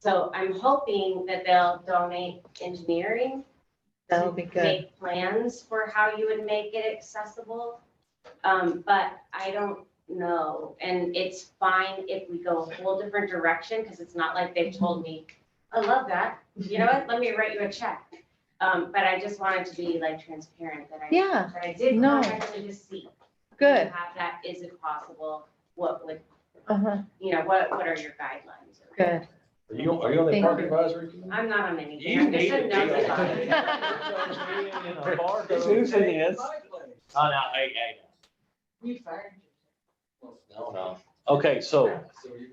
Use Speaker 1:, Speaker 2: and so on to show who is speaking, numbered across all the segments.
Speaker 1: So I'm hoping that they'll donate engineering.
Speaker 2: That would
Speaker 1: to
Speaker 2: be good.
Speaker 1: Make plans for how you would make it accessible. Um, but I don't know, and it's fine if we go a whole different direction, because it's not like they've told me, I love that, you know what, let me write you a check. Um, but I just wanted to be like transparent that I.
Speaker 2: Yeah,
Speaker 1: That I did
Speaker 2: No.
Speaker 1: contact to just see.
Speaker 2: good.
Speaker 1: Have that, is it possible, what would,
Speaker 2: Uh-huh,
Speaker 1: you know, what, what are your guidelines?
Speaker 2: good.
Speaker 3: Are you, are you on the
Speaker 2: Thank
Speaker 3: park
Speaker 2: you.
Speaker 3: advisory? committee?
Speaker 1: I'm not on anything.
Speaker 3: You
Speaker 1: I'm just
Speaker 3: need
Speaker 1: a
Speaker 3: to be on
Speaker 1: nosy
Speaker 3: it.
Speaker 1: body.
Speaker 4: Susan is.
Speaker 5: Oh, no, I, I,
Speaker 6: We fired
Speaker 5: no, no. Okay, so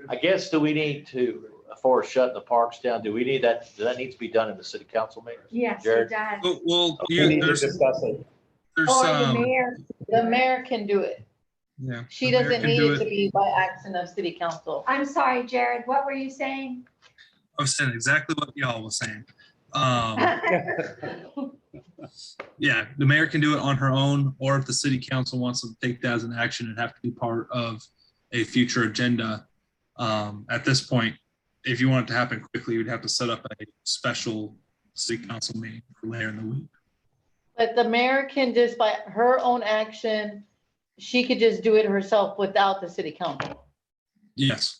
Speaker 5: I guess do we need to, for shutting the parks down, do we need that, does that need to be done in the city council meeting?
Speaker 2: Yes,
Speaker 5: Jared?
Speaker 2: does.
Speaker 7: Well, Well,
Speaker 4: We
Speaker 7: yeah,
Speaker 4: need to
Speaker 7: there's,
Speaker 4: discuss it.
Speaker 7: there's,
Speaker 2: Or the
Speaker 7: um,
Speaker 2: mayor, the mayor can do it.
Speaker 7: yeah.
Speaker 2: She
Speaker 7: the mayor
Speaker 2: doesn't
Speaker 7: can
Speaker 2: need
Speaker 7: do
Speaker 2: it to be by action of city council.
Speaker 8: I'm sorry, Jared, what were you saying?
Speaker 7: I was saying exactly what y'all was saying. Um, yeah, the mayor can do it on her own, or if the city council wants to take that as an action and have to be part of a future agenda. Um, at this point, if you want it to happen quickly, you'd have to set up a special city council meeting for later in the week.
Speaker 2: But the mayor can just by her own action, she could just do it herself without the city council.
Speaker 7: Yes,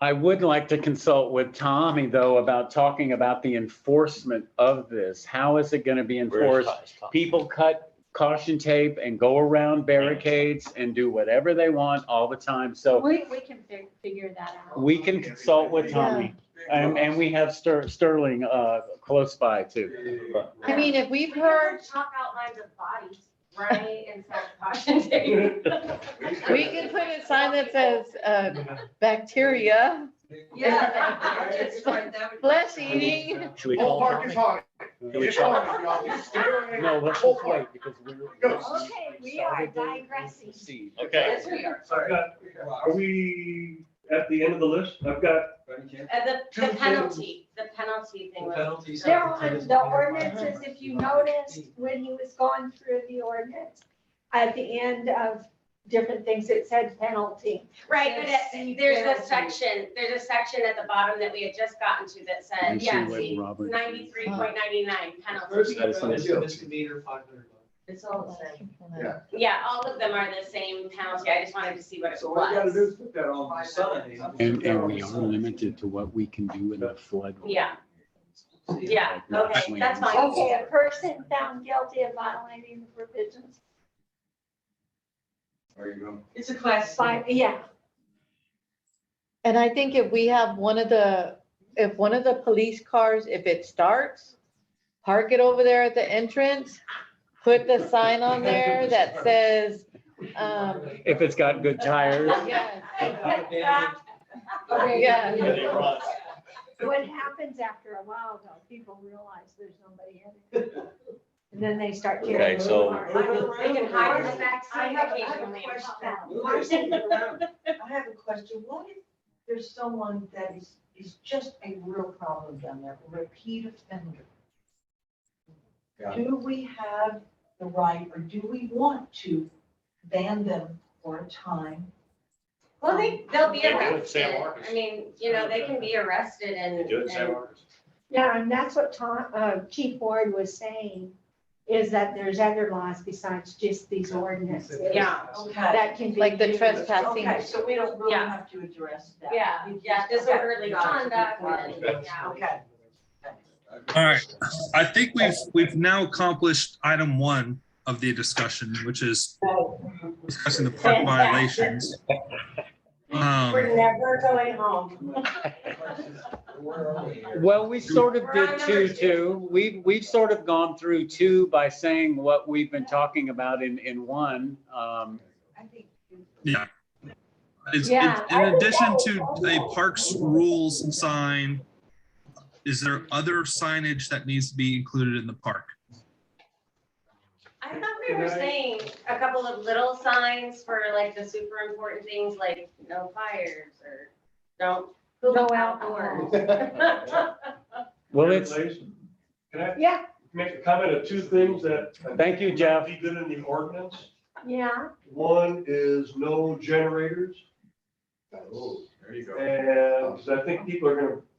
Speaker 4: I would like to consult with Tommy, though, about talking about the enforcement of this. How is it going to be
Speaker 5: Where's
Speaker 4: enforced?
Speaker 5: Ty- is Ty?
Speaker 4: People cut caution tape and go around barricades and do whatever they want all the time. So
Speaker 8: We, we can fi- figure that out.
Speaker 4: we can consult with Tommy. And, and we have Ster- Sterling uh, close by too.
Speaker 2: I mean, if we've heard,
Speaker 1: Chalk outlines of bodies, right, inside caution tape.
Speaker 2: we can put a sign that says, uh, bacteria,
Speaker 1: Uh,
Speaker 6: Yeah. Just like that would-
Speaker 2: flesh eating.
Speaker 4: Should we call
Speaker 9: Whole park
Speaker 4: Tommy?
Speaker 9: is hot.
Speaker 4: Should we
Speaker 9: It's
Speaker 4: call-
Speaker 9: hot, y'all. It's scary.
Speaker 4: No, let's
Speaker 9: Whole
Speaker 4: just
Speaker 9: park.
Speaker 4: wait because we're.
Speaker 8: Okay, we are digressing.
Speaker 5: Okay,
Speaker 6: Yes, we are.
Speaker 9: I've got- Are we at the end of the list? I've got,
Speaker 1: Uh, the, the penalty, the penalty thing was,
Speaker 8: There on the ordinances, if you noticed, when he was going through the ordinance, at the end of different things, it said penalty.
Speaker 1: right, but it- there's a
Speaker 6: Penalty.
Speaker 1: section, there's a section at the bottom that we had just gotten to that said, yeah, see,
Speaker 4: Robert.
Speaker 1: ninety-three point ninety-nine penalty.
Speaker 9: Misdemeanor,
Speaker 6: It's all the same.
Speaker 1: Yeah, all of them are the same penalty, I just wanted to see what it
Speaker 9: So what you gotta do
Speaker 1: was.
Speaker 9: is put that on the sign.
Speaker 4: And, and we are limited to what we can do in a flood.
Speaker 1: Yeah. Yeah, okay, that's fine.
Speaker 8: Okay, a person found guilty of violating the provisions,
Speaker 3: There you go.
Speaker 6: It's a class.
Speaker 8: by yeah,
Speaker 2: And I think if we have one of the, if one of the police cars, if it starts, park it over there at the entrance, put the sign on there that says, um,
Speaker 4: If it's got good tires.
Speaker 2: yes,
Speaker 6: Okay.
Speaker 2: Yeah.
Speaker 5: They run.
Speaker 8: what happens after a while though, people realize there's nobody in it. And then they start tearing.
Speaker 5: Okay, so-
Speaker 1: They can hide in the
Speaker 6: I
Speaker 1: backseat
Speaker 6: have a- I have a
Speaker 1: occasionally.
Speaker 6: question.
Speaker 9: Move this thing around.
Speaker 6: I have a question. What if there's someone that is, is just a real problem down there, a repeat offender?
Speaker 3: Yeah.
Speaker 6: Do we have the right or do we want to ban them for a time?
Speaker 1: Well, they, they'll be
Speaker 5: They do it, San
Speaker 1: arrested,
Speaker 5: Marcos.
Speaker 1: I mean, you know, they can be arrested and.
Speaker 5: Do it, Sam.
Speaker 1: and-
Speaker 8: Yeah, and that's what Tom, uh, Chief Ward was saying, is that there's other laws besides just these ordinances
Speaker 1: Yeah.
Speaker 6: Okay.
Speaker 8: that can be.
Speaker 2: like the
Speaker 8: used.
Speaker 2: trespassing.
Speaker 6: Okay, so we don't really
Speaker 1: Yeah.
Speaker 6: have to address that.
Speaker 1: Yeah,
Speaker 6: We
Speaker 1: yeah,
Speaker 6: just- okay.
Speaker 1: disorderly conduct and, yeah.
Speaker 6: Okay.
Speaker 7: all right. I think we've, we've now accomplished item one of the discussion, which is discussing the park violations. Um,
Speaker 1: We're never going home.
Speaker 3: Where are we here?
Speaker 4: Well, we sort of
Speaker 1: We're on
Speaker 4: did
Speaker 1: number
Speaker 4: two, too. We've, we've sort of gone through two by saying what we've been talking about in, in one. Um,
Speaker 6: I think.
Speaker 7: Yeah. Is, in
Speaker 8: Yeah,
Speaker 7: in addition to a parks rules sign, is there other signage that needs to be included in the park?
Speaker 1: I thought we were saying a couple of little signs for like the super important things like no fires or don't
Speaker 8: No
Speaker 1: poop
Speaker 8: alcohol.
Speaker 1: outdoors.
Speaker 4: Well, it's,
Speaker 9: Can I
Speaker 8: Yeah,
Speaker 9: make a comment of two things that?
Speaker 4: Thank you, Jeff.
Speaker 9: Be good in the ordinance.
Speaker 8: yeah,
Speaker 9: One is no generators,
Speaker 3: Oh, There you go.
Speaker 9: and 'cause I think people are gonna